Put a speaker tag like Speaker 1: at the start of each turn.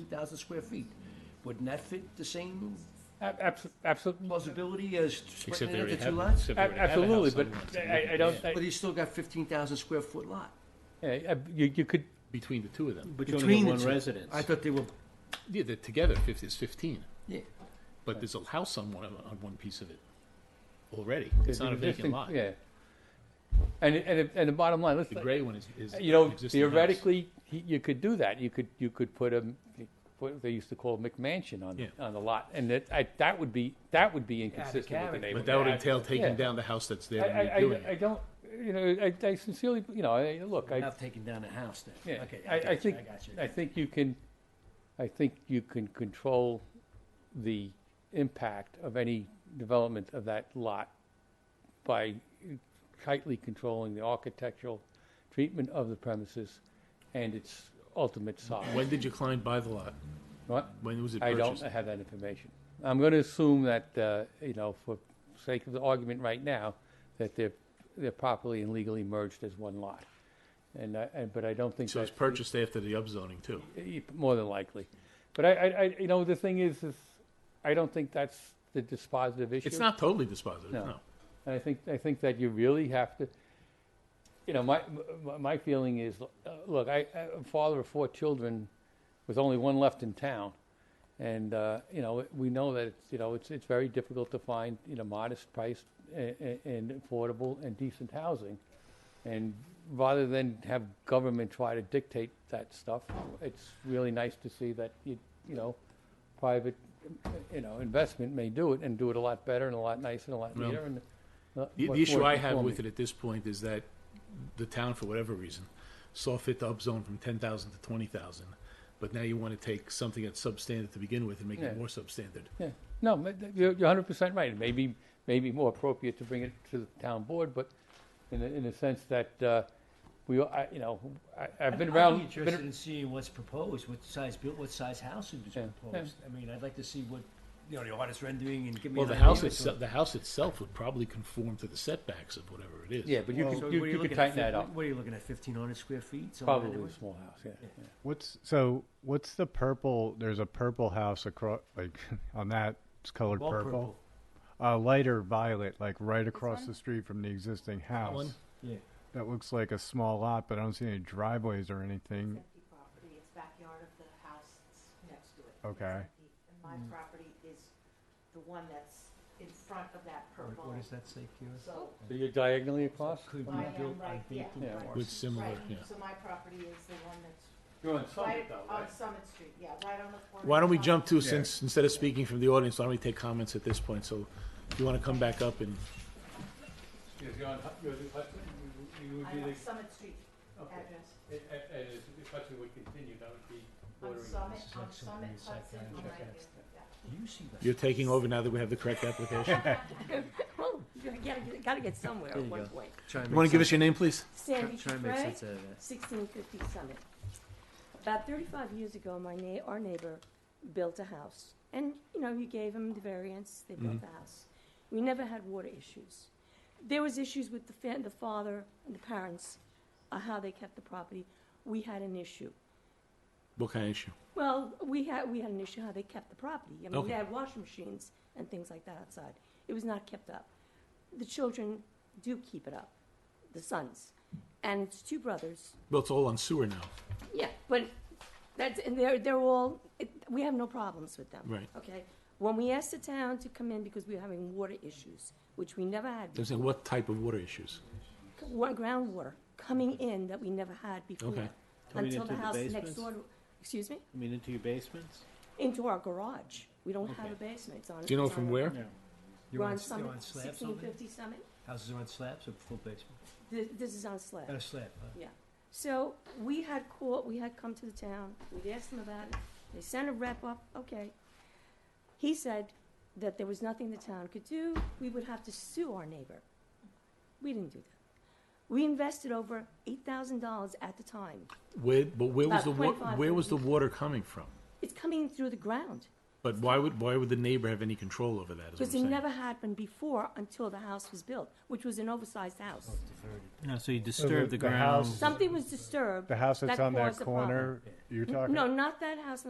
Speaker 1: 2,000 square feet. Wouldn't that fit the same
Speaker 2: Absolutely,
Speaker 1: plausibility as splitting
Speaker 3: Except
Speaker 1: it
Speaker 3: they already
Speaker 1: into two
Speaker 3: have,
Speaker 1: lots?
Speaker 3: except they already have a
Speaker 2: absolutely,
Speaker 3: house
Speaker 2: but
Speaker 3: on it.
Speaker 2: I, I don't,
Speaker 1: But
Speaker 2: I-
Speaker 1: he's still got 15,000 square foot lot.
Speaker 2: yeah, I- you, you could,
Speaker 3: Between the two of them.
Speaker 4: But you only
Speaker 1: between
Speaker 4: have
Speaker 1: the
Speaker 4: one
Speaker 1: two.
Speaker 4: residence.
Speaker 1: I thought they were,
Speaker 3: Yeah, they're together, fif- it's fifteen,
Speaker 1: yeah.
Speaker 3: but there's a house on one, of- on one piece of it already.
Speaker 2: there's
Speaker 3: It's not a
Speaker 2: an
Speaker 3: vacant
Speaker 2: existing-
Speaker 3: lot.
Speaker 2: Yeah. And, and, the- and the bottom line, let's,
Speaker 3: The gray one is, is.
Speaker 2: you know,
Speaker 3: an existing house.
Speaker 2: theoretically, he- you could do that. You could, you could put a, what they used to call a McMansion on,
Speaker 3: Yeah.
Speaker 2: on the lot. And that, I, that would be, that would be inconsistent with the
Speaker 1: character.
Speaker 2: neighborhood.
Speaker 3: But that would entail
Speaker 2: Yeah.
Speaker 3: taking down the house that's there
Speaker 2: I,
Speaker 3: and redoing
Speaker 2: I, I
Speaker 3: it.
Speaker 2: don't, you know, I, I sincerely, you know, I, look, I,
Speaker 1: Not taking down a house then.
Speaker 2: yeah,
Speaker 1: Okay,
Speaker 2: I, I
Speaker 1: got you,
Speaker 2: think,
Speaker 1: got you.
Speaker 2: I think you can, I think you can control the impact of any development of that lot by tightly controlling the architectural treatment of the premises and its ultimate size.
Speaker 3: When did your client buy the lot?
Speaker 2: What?
Speaker 3: When was it
Speaker 2: I don't
Speaker 3: purchased?
Speaker 2: have that information. I'm going to assume that, uh, you know, for sake of the argument right now, that they're, they're properly and legally merged as one lot. And I, and- but I don't think
Speaker 3: So it's
Speaker 2: that's
Speaker 3: purchased after the upzoning too.
Speaker 2: eh, more than likely. But I, I, I, you know, the thing is, is I don't think that's the dispositive issue.
Speaker 3: It's not totally dispositive,
Speaker 2: No.
Speaker 3: no.
Speaker 2: And I think, I think that you really have to, you know, my, my- my feeling is, uh, look, I, I- I'm a father of four children with only one left in town. And, uh, you know, we know that, it's, you know, it's, it's very difficult to find, you know, modest priced and, and affordable and decent housing. And rather than have government try to dictate that stuff, it's really nice to see that, you, you know, private, you know, investment may do it and do it a lot better and a lot nicer and a lot
Speaker 3: Well,
Speaker 2: neater and. a lot
Speaker 3: The,
Speaker 2: more
Speaker 3: the issue I have
Speaker 2: conforming.
Speaker 3: with it at this point is that the town, for whatever reason, saw fit to upzone from ten thousand to twenty thousand, but now you want to take something that's substandard to begin with and make
Speaker 2: Yeah.
Speaker 3: it more substandard.
Speaker 2: Yeah, no, ma- th- you're, you're hundred percent right. It may be, may be more appropriate to bring it to the town board, but in the, in the sense that, uh, we, I, you know, I, I've been
Speaker 1: I'd be
Speaker 2: around,
Speaker 1: interested
Speaker 2: been,
Speaker 1: in seeing what's proposed, what size built, what size house is
Speaker 2: Yeah,
Speaker 1: proposed. I mean, I'd like to see what, you know, the artist rendering and give me.
Speaker 3: Well,
Speaker 1: an
Speaker 3: the
Speaker 1: idea
Speaker 3: house
Speaker 1: to-
Speaker 3: itself, the house itself would probably conform to the setbacks of whatever it is.
Speaker 2: yeah, but you
Speaker 1: Well,
Speaker 2: could,
Speaker 1: what
Speaker 2: you,
Speaker 1: are
Speaker 2: you could
Speaker 1: looking at?
Speaker 2: tighten that
Speaker 1: Fif-
Speaker 2: up.
Speaker 1: What are you looking at, fifteen hundred square feet? something like that?
Speaker 2: Probably a small house, yeah. yeah.
Speaker 5: What's so? What's the purple? There's a purple house across, like on that. It's colored
Speaker 1: Well,
Speaker 5: purple. A lighter violet, like right across the street from the existing house.
Speaker 3: one?
Speaker 1: Yeah.
Speaker 5: That looks like a small lot, but I don't see any driveways or anything.
Speaker 6: empty property, it's backyard of the house that's next to it. It's
Speaker 5: Okay.
Speaker 6: empty. And my
Speaker 1: Mm.
Speaker 6: property is the one that's in front of that
Speaker 1: What-
Speaker 6: purple,
Speaker 1: What does that say, Kira?
Speaker 6: so
Speaker 2: So you're diagonally across?
Speaker 1: Could be
Speaker 6: I
Speaker 1: built on
Speaker 6: am right, yeah,
Speaker 1: vacant
Speaker 2: Yeah.
Speaker 1: parcel.
Speaker 3: With similar,
Speaker 6: right,
Speaker 3: yeah.
Speaker 6: so my property is the one that's
Speaker 2: You're on
Speaker 6: right on Summit Street, yeah, right on the corner.
Speaker 3: Why don't we
Speaker 6: of
Speaker 3: jump to,
Speaker 6: Summit-
Speaker 3: since, instead of speaking from the audience, why don't we take comments at this point? So if you want to come back up and,
Speaker 2: You're on, Hu- you're on Hudson, you, you would
Speaker 6: I'm
Speaker 2: be
Speaker 6: on
Speaker 2: the,
Speaker 6: Summit Street
Speaker 2: okay.
Speaker 6: address,
Speaker 2: And, and if Hudson would continue, that would be
Speaker 6: on
Speaker 2: bordering.
Speaker 6: Summit,
Speaker 1: is
Speaker 6: on
Speaker 1: like some
Speaker 6: Summit
Speaker 1: weird
Speaker 6: Hudson,
Speaker 1: psychiatric
Speaker 6: on my,
Speaker 1: test.
Speaker 6: yeah.
Speaker 1: You see that?
Speaker 3: you're taking over now that we have the correct application.
Speaker 7: Well, you gotta, get- gotta get somewhere
Speaker 1: There
Speaker 7: at
Speaker 1: you
Speaker 7: one
Speaker 1: go.
Speaker 7: point.
Speaker 1: Try and
Speaker 3: You want
Speaker 1: make
Speaker 3: to give us
Speaker 1: sense-
Speaker 3: your name, please?
Speaker 7: Sandy
Speaker 1: Try and make
Speaker 7: Frey,
Speaker 1: sense out of that.
Speaker 7: sixteen fifty Summit. About thirty-five years ago, my na, our neighbor built a house, and, you know, you gave him the variance, they built
Speaker 1: Mm-hmm.
Speaker 7: the house. We never had water issues. There was issues with the fa, the father and the parents, uh, how they kept the property. We had an issue.
Speaker 3: What kind of issue?
Speaker 7: Well, we had, we had an issue how they kept the property. I mean,
Speaker 3: Okay.
Speaker 7: they had washing machines and things like that outside. It was not kept up. The children do keep it up, the sons. And it's two brothers.
Speaker 3: Well, it's all on sewer now.
Speaker 7: Yeah, but that's, and they're, they're all, it, we have no problems with them.
Speaker 3: Right.
Speaker 7: Okay? When we asked the town to come in because we were having water issues, which we never had
Speaker 3: I'm
Speaker 7: before,
Speaker 3: saying, what type of water issues?
Speaker 7: wa- groundwater coming in that we never had before.
Speaker 3: Okay.
Speaker 4: Coming
Speaker 7: Until
Speaker 4: into
Speaker 7: the
Speaker 4: the
Speaker 7: house next
Speaker 4: basements?
Speaker 7: door, to- excuse me?
Speaker 4: I mean, into your basements?
Speaker 7: into our garage. We don't have
Speaker 4: Okay.
Speaker 7: a basement. It's on.
Speaker 3: Do you know
Speaker 7: it's on
Speaker 3: from
Speaker 7: a-
Speaker 3: where?
Speaker 1: You're
Speaker 7: We're
Speaker 1: on
Speaker 7: on
Speaker 1: s- you're
Speaker 7: Summit,
Speaker 1: on slabs
Speaker 7: sixteen
Speaker 1: over there?
Speaker 7: fifty Summit.
Speaker 1: Houses are on slabs or full basement?
Speaker 7: This, this is on
Speaker 1: On a
Speaker 7: slab.
Speaker 1: slab, huh?
Speaker 7: Yeah. So we had called, we had come to the town, we'd asked them about it. They sent a rep up, okay. He said that there was nothing the town could do. We would have to sue our neighbor. We didn't do that. We invested over eight thousand dollars at the time.
Speaker 3: Where, but where was
Speaker 7: About
Speaker 3: the wa,
Speaker 7: 25
Speaker 3: where was the water coming from?
Speaker 7: It's coming through the ground.
Speaker 3: But why would, why would the neighbor have any control over that, is what I'm
Speaker 7: Because it
Speaker 3: saying?
Speaker 7: never happened before until the house was built, which was an oversized
Speaker 5: Oh,
Speaker 7: house.
Speaker 4: No, so you
Speaker 5: the-
Speaker 4: disturb the
Speaker 5: the
Speaker 4: ground.
Speaker 5: house-
Speaker 7: Something was disturbed.
Speaker 5: The house that's on that
Speaker 7: caused the problem. Hmm?
Speaker 5: corner. You're talking.
Speaker 7: No, not that house